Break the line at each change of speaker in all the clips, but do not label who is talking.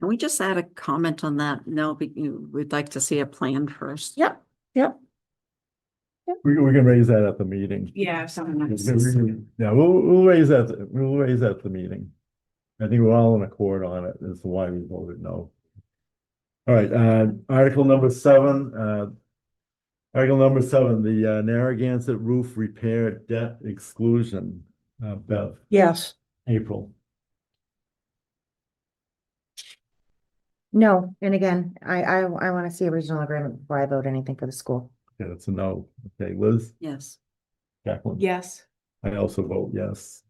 Can we just add a comment on that? No, but you, we'd like to see a plan first.
Yep, yep.
We, we can raise that at the meeting.
Yeah, if someone
We
wants
can-
to
we
see.
can- Yeah, we'll, we'll raise that, we'll raise that at the meeting. I think we're all in accord on it, is why we voted no. All right, uh, article number seven, uh. Article number seven, the uh, Narragansett roof repair debt exclusion, uh, Bev,
Yes.
April.
No, and again, I, I, I want to see a regional agreement before I vote anything for the school.
Yeah, that's a no. Okay, Liz,
Yes.
Jacqueline.
Yes,
I also vote yes.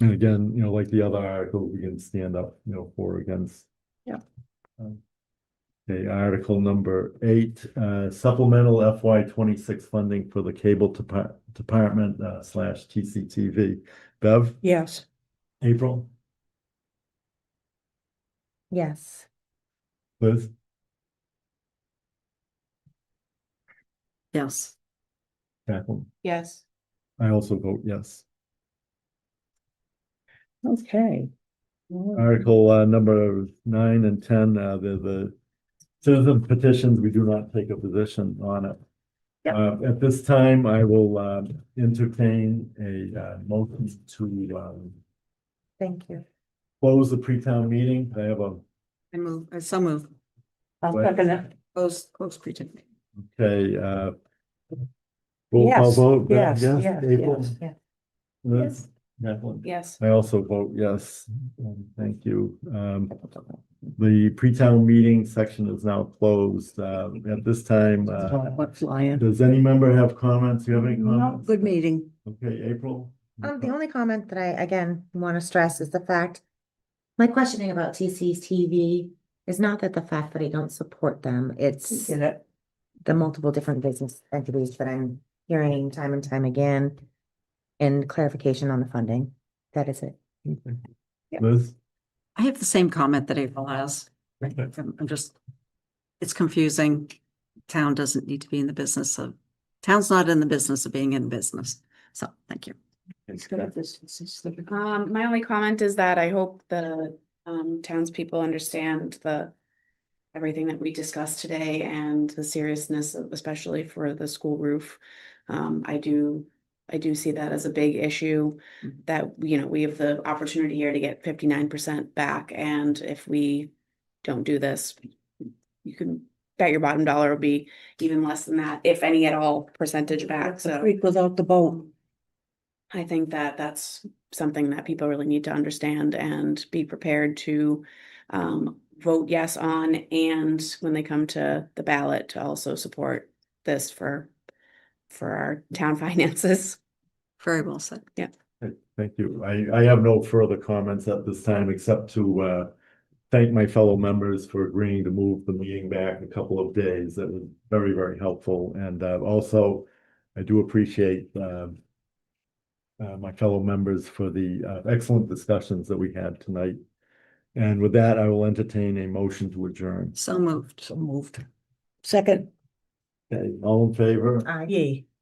And again, you know, like the other article, we can stand up, you know, for or against.
Yeah.
Um, Okay, article number eight, uh, supplemental FY twenty-six funding for the cable depart- department uh, slash TCTV. Bev,
Yes.
April,
Yes,
Liz,
Yes,
Jacqueline,
yes,
I also vote yes.
Okay.
Article uh number nine and ten, uh the the citizen petitions, we do not take a position on it.
Yep.
Uh, at this time, I will um entertain a uh motion to um
thank you.
close the pre-town meeting. I have a,
I move, I so move,
I'll
What?
second it.
close, close pretend.
okay, uh. Roll call
Yes,
vote. Beth,
yes, yes,
April,
yes.
Yeah.
Liz, Jacqueline?
yes,
I also vote yes. Um, Thank you. Um, the pre-town meeting section is now closed. Uh, at this time, uh,
What flying?
does any member have comments? You have any
No.
comments?
Good meeting.
Okay, April?
Um, the only comment that I, again, want to stress is the fact, my questioning about TC's TV is not that the fact that I don't support them, it's
Get it?
the multiple different business entities that I'm hearing time and time again. And clarification on the funding, that is it.
Liz?
I have the same comment that April has.
Okay.
I'm I'm just, it's confusing. Town doesn't need to be in the business of, town's not in the business of being in business. So, thank you.
um, my only comment is that I hope the, um, townspeople understand the. Everything that we discussed today and the seriousness, of- especially for the school roof. Um, I do, I do see that as a big issue. That, you know, we have the opportunity here to get fifty-nine percent back, and if we don't do this. You can bet your bottom dollar will be even less than that, if any at all, percentage back, so.
Creek without the boat.
I think that that's something that people really need to understand and be prepared to um, vote yes on. And when they come to the ballot, to also support this for, for our town finances.
Very well said.
Okay, Thank you. I, I have no further comments at this time except to, uh, thank my fellow members for agreeing to move the meeting back a couple of days. That was very, very helpful. And, uh, also, I do appreciate, um, uh, my fellow members for the, uh, excellent discussions that we had tonight. And with that, I will entertain a motion to adjourn.
So moved. So moved.
Second,
Okay, all in favor?
Aye.
yay.